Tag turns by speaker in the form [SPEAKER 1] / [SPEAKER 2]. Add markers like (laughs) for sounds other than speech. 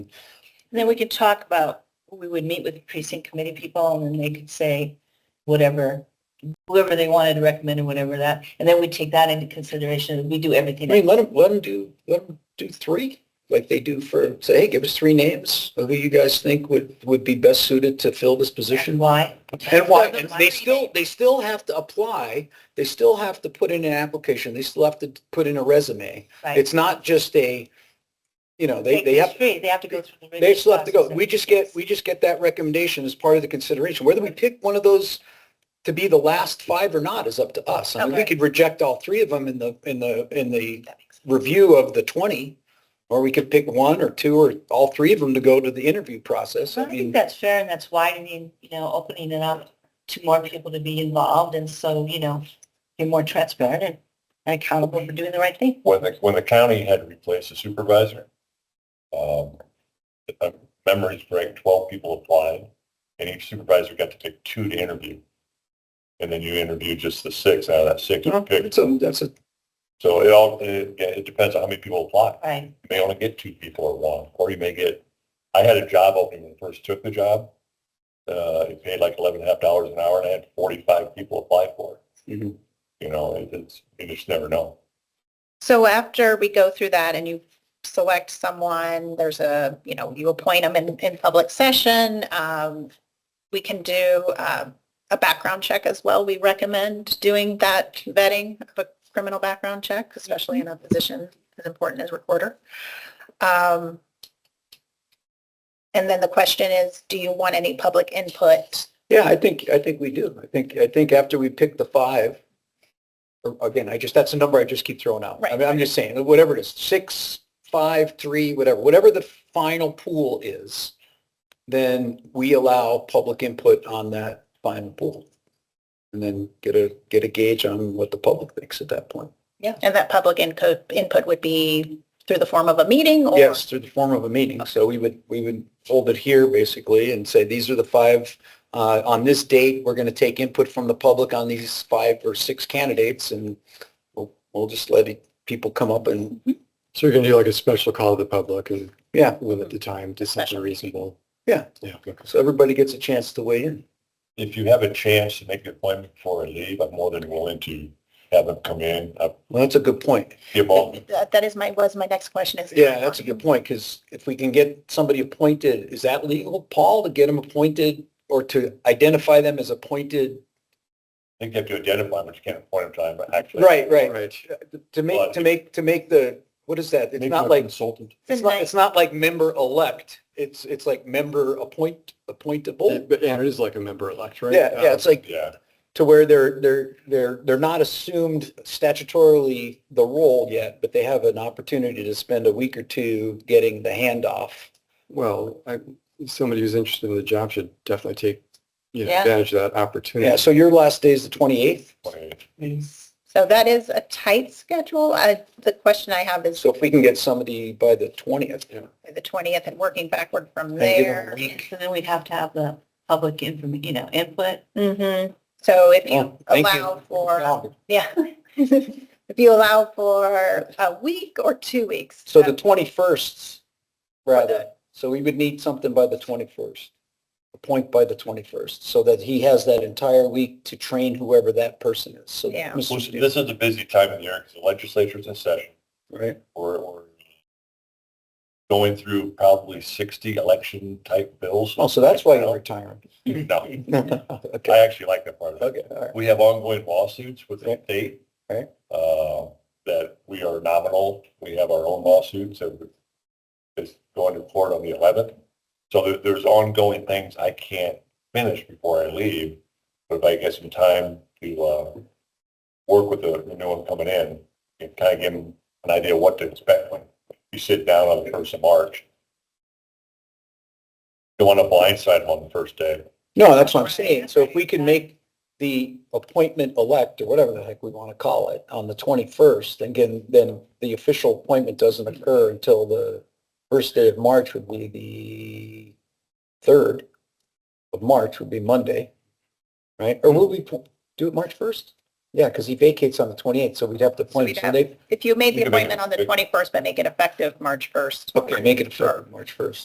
[SPEAKER 1] And then we could talk about, we would meet with precinct committee people and then they could say whatever, whoever they wanted to recommend and whatever that, and then we take that into consideration. We do
[SPEAKER 2] I
[SPEAKER 1] everything.
[SPEAKER 2] mean, let them, let them do, let them do three, like they do for, say, hey, give us three names of who you guys think would, would be best suited to fill this position.
[SPEAKER 1] Why?
[SPEAKER 2] And why, and they still, they still have to apply, they still have to put in an application, they still have to put in a resume.
[SPEAKER 1] Right.
[SPEAKER 2] It's not just a, you know, they,
[SPEAKER 1] Take
[SPEAKER 2] they
[SPEAKER 1] the
[SPEAKER 2] have,
[SPEAKER 1] three, They have to go through. the
[SPEAKER 2] they still have to go.
[SPEAKER 1] process.
[SPEAKER 2] We just get, we just get that recommendation as part of the consideration. Whether we pick one of those to be the last five or not is up to us. I mean, we
[SPEAKER 1] Okay.
[SPEAKER 2] could reject all three of them in the, in the, in the
[SPEAKER 1] That makes sense.
[SPEAKER 2] review of the 20, or we could pick one or two or all three of them to go to the interview process.
[SPEAKER 1] Well,
[SPEAKER 2] I
[SPEAKER 1] I think
[SPEAKER 2] mean,
[SPEAKER 1] that's fair and that's widening, you know, opening it up to more people to be involved and so, you know, be more transparent and and accountable for doing the right thing.
[SPEAKER 3] when the, when the county had replaced the supervisor, um, if my memory's correct, twelve people applied, and each supervisor got to pick two to interview. And then you interview just the six out of that six you picked.
[SPEAKER 2] that's a, that's a,
[SPEAKER 3] So it all, it, it depends on how many people apply.
[SPEAKER 1] Right.
[SPEAKER 3] You may only get two people or one, or you may get, I had a job opening when I first took the job. Uh, it paid like eleven and a half dollars an hour, and I had forty-five people apply for it.
[SPEAKER 2] Mhm.
[SPEAKER 3] You know, it- it's, you just never know.
[SPEAKER 4] So after we go through that and you select someone, there's a, you know, you appoint them in, in public session, um, we can do, um, a background check as well. We recommend doing that vetting of a criminal background check, especially in a position as important as recorder. Um, and then the question is, do you want any public input?
[SPEAKER 2] yeah, I think, I think we do. I think, I think after we pick the five, or again, I just, that's a number I just keep throwing out. I
[SPEAKER 4] Right.
[SPEAKER 2] mean, I'm just saying, whatever it is, six, five, three, whatever, whatever the final pool is, then we allow public input on that final pool. And then get a, get a gauge on what the public thinks at that point.
[SPEAKER 4] And that public input, input would be through the form of a meeting or?
[SPEAKER 2] Yes, through the form of a meeting. So we would, we would hold it here basically and say, these are the five, uh, on this date, we're going to take input from the public on these five or six candidates and we'll, we'll just let it- people come up and,
[SPEAKER 5] So you're gonna do like a special call to the public and
[SPEAKER 2] yeah.
[SPEAKER 5] limit the time to something reasonable?
[SPEAKER 2] Yeah.
[SPEAKER 5] Yeah.
[SPEAKER 2] So everybody gets a chance to weigh in.
[SPEAKER 3] if you have a chance to make an appointment before I leave, I'm more than willing to have them come in. I
[SPEAKER 2] Well, that's a good point.
[SPEAKER 3] give all,
[SPEAKER 4] That that is my, was my next question is.
[SPEAKER 2] Yeah, that's a good point because if we can get somebody appointed, is that legal, Paul, to get them appointed or to identify them as appointed?
[SPEAKER 3] I think you have to identify them, but you can't appoint them time, but actually.
[SPEAKER 2] Right, right.
[SPEAKER 5] Right.
[SPEAKER 2] To make, to make, to make the, what is that? It's
[SPEAKER 3] Make them
[SPEAKER 2] not
[SPEAKER 3] a
[SPEAKER 2] like
[SPEAKER 3] Consultant.
[SPEAKER 2] It's not, it's not like member elect. It's, it's like member appoint, appointable.
[SPEAKER 5] But yeah, it is like a member elect, right?
[SPEAKER 2] Oh. Yeah, yeah, it's like
[SPEAKER 3] Uh, Yeah,
[SPEAKER 2] to where they're, they're, they're, they're not assumed statutorily the role yet, but they have an opportunity to spend a week or two getting the handoff.
[SPEAKER 5] Well, I, somebody who's interested in the job should definitely take, you know,
[SPEAKER 1] Yeah.
[SPEAKER 5] advantage of that opportunity.
[SPEAKER 2] Yeah, so your last day is the twenty-eighth.
[SPEAKER 3] appointed.
[SPEAKER 4] So that is a tight schedule. I, the question I have is
[SPEAKER 2] So if we can get somebody by the twentieth,
[SPEAKER 4] the 20th and working backward from
[SPEAKER 2] And give them
[SPEAKER 4] there.
[SPEAKER 2] a week.
[SPEAKER 1] So then we'd have to have the public inform, you know, input.
[SPEAKER 4] Mhm. So if you
[SPEAKER 2] Oh, thank you.
[SPEAKER 4] allow for, yeah. (laughs) If you allow for a week or two weeks. uh,
[SPEAKER 2] So the
[SPEAKER 4] that-
[SPEAKER 2] twenty-first, rather, so we would need something by the twenty-first. A point by the twenty-first, so that he has that entire week to train whoever that person is. So,
[SPEAKER 4] Yeah.
[SPEAKER 2] Mr.
[SPEAKER 3] Well,
[SPEAKER 2] Steele,
[SPEAKER 3] This is a busy time of the year because the legislature's in session.
[SPEAKER 2] Right.
[SPEAKER 3] We're, we're going through probably sixty election type bills.
[SPEAKER 2] Oh, so that's why you're retiring. (laughs)
[SPEAKER 3] No, I
[SPEAKER 2] Okay,
[SPEAKER 3] actually like that part of it.
[SPEAKER 2] okay, all right.
[SPEAKER 3] We have ongoing lawsuits with the
[SPEAKER 2] Right.
[SPEAKER 3] state.
[SPEAKER 2] Right.
[SPEAKER 3] uh, That we are nominal. We have our own lawsuits and it's going to court on the eleventh. So there, there's ongoing things I can't finish before I leave. But if I get some time to, uh, work with the the new one coming in and kind of give them an idea what to expect when you sit down on the first of March. Don't want to blindside 'em on the first day.
[SPEAKER 2] No, that's what I'm saying. So if we can make the appointment elect or whatever the heck we want to call it on the twenty-first, then again, then the official appointment doesn't occur until the first day of March would be the third of March would be Monday, right? Or will we po- do it March first? Yeah, because he vacates on the twenty-eighth, so we'd have to appoint,
[SPEAKER 4] we'd
[SPEAKER 2] so
[SPEAKER 4] have-
[SPEAKER 2] they,
[SPEAKER 4] If you made
[SPEAKER 3] You
[SPEAKER 4] the
[SPEAKER 3] can make it
[SPEAKER 4] appointment on the
[SPEAKER 3] quick.
[SPEAKER 4] 21st, but make it effective March 1st.
[SPEAKER 2] okay, make it effective March first.